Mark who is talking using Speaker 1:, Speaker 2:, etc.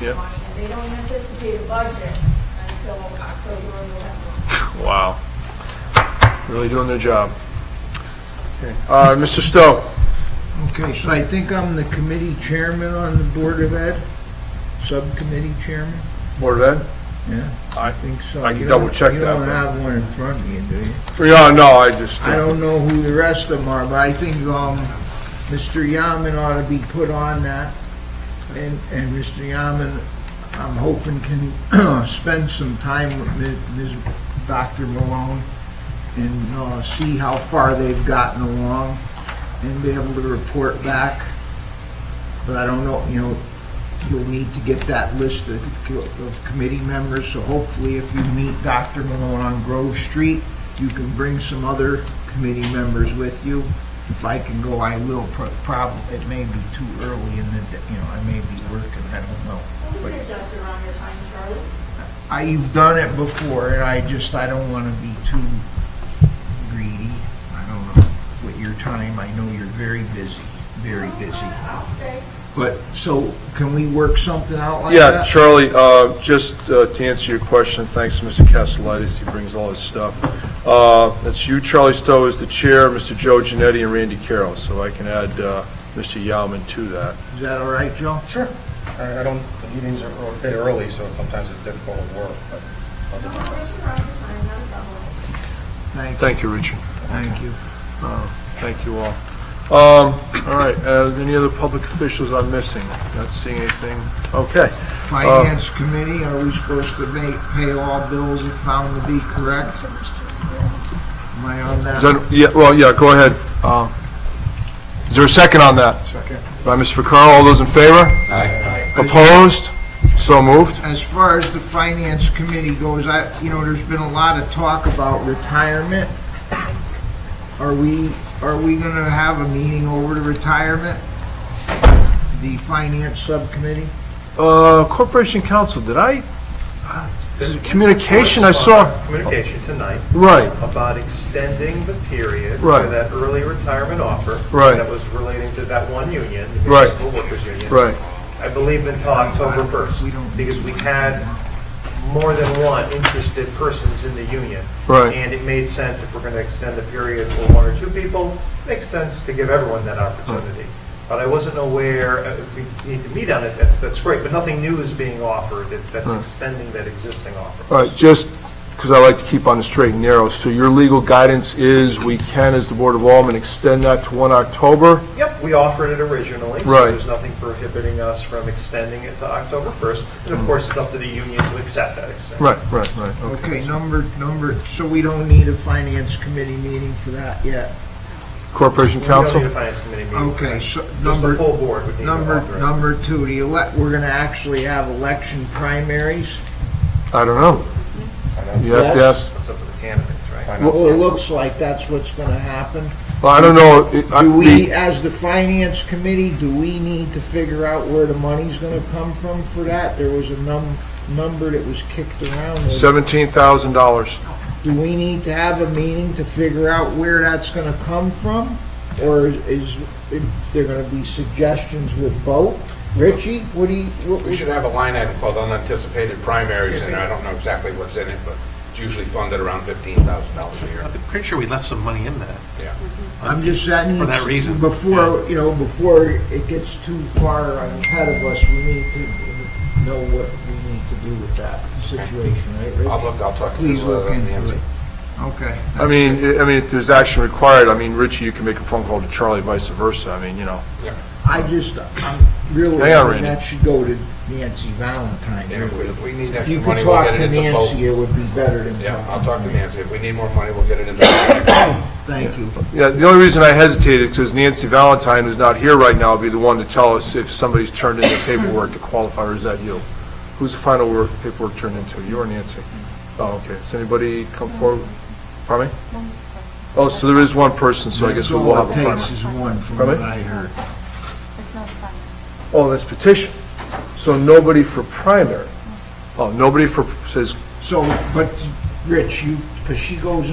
Speaker 1: Yeah.
Speaker 2: money, and they don't anticipate a budget until October or November.
Speaker 1: Wow. Really doing their job. Okay. Uh, Mr. Stowe?
Speaker 3: Okay, so I think I'm the committee chairman on the Board of Ed, subcommittee chairman?
Speaker 1: Board of Ed?
Speaker 3: Yeah.
Speaker 1: I-
Speaker 3: I think so.
Speaker 1: I can
Speaker 3: You don't-
Speaker 1: double check
Speaker 3: You
Speaker 1: that,
Speaker 3: don't
Speaker 1: but-
Speaker 3: have one in front of you, do you?
Speaker 1: Yeah, no, I just. uh,
Speaker 3: I don't know who the rest of them are, but I think, um, Mr. Yaman ought to be put on that. And, and Mr. Yaman, I'm hoping can spend some time with Mi- Ms., Dr. Malone and, uh, see how far they've gotten along and be able to report back. But I don't know, you know, you'll need to get that list of, of committee members, so hopefully if you meet Dr. Malone on Grove Street, you can bring some other committee members with you. If I can go, I will, probably, it may be too early in the, day, you know, I may be working, I don't know.
Speaker 2: We can adjust around your time, Charlie.
Speaker 3: I, you've done it before, and I just, I don't wanna be too greedy, I don't know, with your time, I know you're very busy, very busy.
Speaker 2: Okay.
Speaker 3: But, so, can we work something out like that?
Speaker 1: Yeah, Charlie, uh, just uh, to answer your question, thanks to Mr. Castellitis, he brings all his stuff. Uh, That's you, Charlie Stowe is the chair, Mr. Joe Genetti and Randy Carroll, so I can add uh, Mr. Yaman to that.
Speaker 3: Is that all right, Joe?
Speaker 4: Sure. I I don't, the meetings are ear- they're early, so sometimes it's difficult to work, but I'll do
Speaker 2: No,
Speaker 4: my
Speaker 2: I'll
Speaker 4: best.
Speaker 2: let you run your time, no problem.
Speaker 3: Thank you,
Speaker 1: Thank you, Richard.
Speaker 3: thank you.
Speaker 1: Thank you all. Um, All right, uh, any other public officials I'm missing? Not seeing anything? Okay. Uh,
Speaker 3: Finance Committee, are we supposed to make, pay all bills if found to be correct? Am I on
Speaker 1: Is
Speaker 3: that?
Speaker 1: that- Yeah, well, yeah, go ahead. Uh, Is there a second on that?
Speaker 3: Second.
Speaker 1: By Mr. Vaccaro, all those in favor? Opposed? So moved.
Speaker 3: As far as the Finance Committee goes, I, you know, there's been a lot of talk about retirement. Are we, are we gonna have a meeting over to retirement? The Finance Subcommittee?
Speaker 1: Uh, Corporation Council, did I? There's a communication I saw.
Speaker 5: Communication tonight
Speaker 1: Right,
Speaker 5: about extending the period for
Speaker 1: Right.
Speaker 5: that early retirement offer.
Speaker 1: Right.
Speaker 5: That was relating to that one union, the
Speaker 1: Right.
Speaker 5: municipal workers union.
Speaker 1: right.
Speaker 5: I believe until October first,
Speaker 3: We don't-
Speaker 5: because we had more than one interested persons in the union.
Speaker 1: Right.
Speaker 5: And it made sense if we're gonna extend the period for one or two people, makes sense to give everyone that opportunity. But I wasn't aware, uh, if we need to meet on it, that's, that's great, but nothing new is being offered that- that's extending that existing offer.
Speaker 1: All right, just because I like to keep on the straight and narrow, so your legal guidance is we can, as the Board of Aldermen, extend that to 1 October?
Speaker 5: Yep, we offered it originally. so
Speaker 1: Right.
Speaker 5: There's nothing prohibiting us from extending it to October 1st. And of course, it's up to the union to accept that extension.
Speaker 1: Hmm. Right, right, right.
Speaker 3: Okay, number, number, so we don't need a Finance Committee meeting for that yet?
Speaker 1: Corporation
Speaker 5: We don't
Speaker 1: Council?
Speaker 5: need a finance committee meeting.
Speaker 3: Okay, so
Speaker 5: Just the
Speaker 3: number,
Speaker 5: full board would need to
Speaker 3: Number,
Speaker 5: authorize.
Speaker 3: number two, the elect, we're gonna actually have election primaries?
Speaker 1: I don't know. You have to ask,
Speaker 5: It's up to the candidates, right?
Speaker 3: Well, it looks like that's what's gonna happen.
Speaker 1: Well, I don't know. it- I-
Speaker 3: Do we,
Speaker 1: the-
Speaker 3: as the finance committee, do we need to figure out where the money's gonna come from for that? There was a num, number that was kicked around.
Speaker 1: $17,000.
Speaker 3: Do we need to have a meeting to figure out where that's gonna come from? Or is, is there gonna be suggestions with vote? Richie, what do you, what,
Speaker 6: We should have a line item called unanticipated primaries in there. I don't know exactly what's in it, but it's usually funded around $15,000 a year.
Speaker 7: I'm pretty sure we left some money in there.
Speaker 6: Yeah.
Speaker 3: I'm just saying.
Speaker 7: For that reason.
Speaker 3: Before, you know, before it gets too far ahead of us, we need to know what we need to do with that situation, right, Rich?
Speaker 6: I'll look, I'll talk to
Speaker 3: Please
Speaker 6: uh,
Speaker 3: look into
Speaker 6: Nancy.
Speaker 3: it. Okay.
Speaker 1: I mean, I I mean, if there's action required, I mean, Richie, you can make a phone call to Charlie, vice versa. I mean, you know.
Speaker 3: I just, I'm really,
Speaker 1: Hang on, Randy.
Speaker 3: that should go to Nancy Valentine.
Speaker 6: And if we- if we need
Speaker 3: If
Speaker 6: extra
Speaker 3: you
Speaker 6: money,
Speaker 3: could
Speaker 6: we'll
Speaker 3: talk
Speaker 6: get
Speaker 3: to
Speaker 6: it into
Speaker 3: Nancy,
Speaker 6: both.
Speaker 3: it would be better than.
Speaker 6: Yeah, I'll talk to Nancy. If we need more money, we'll get it into both.
Speaker 3: Thank you.
Speaker 1: Yeah, the only reason I hesitated is because Nancy Valentine, who's not here right now, will be the one to tell us if somebody's turned in their paperwork to qualify, or is that you? Who's the final work, paperwork turned into, you or Nancy? Oh, okay, has anybody come forward? Pardon me? Oh, so there is one person, so I guess we will have a
Speaker 3: That's all it
Speaker 1: primary.
Speaker 3: takes is one from
Speaker 1: Pardon
Speaker 3: what
Speaker 1: me?
Speaker 3: I heard.
Speaker 8: It's not fun.
Speaker 1: Oh, that's petition. So nobody for primary. Oh, nobody for, says
Speaker 3: So, but, Rich, you, because she goes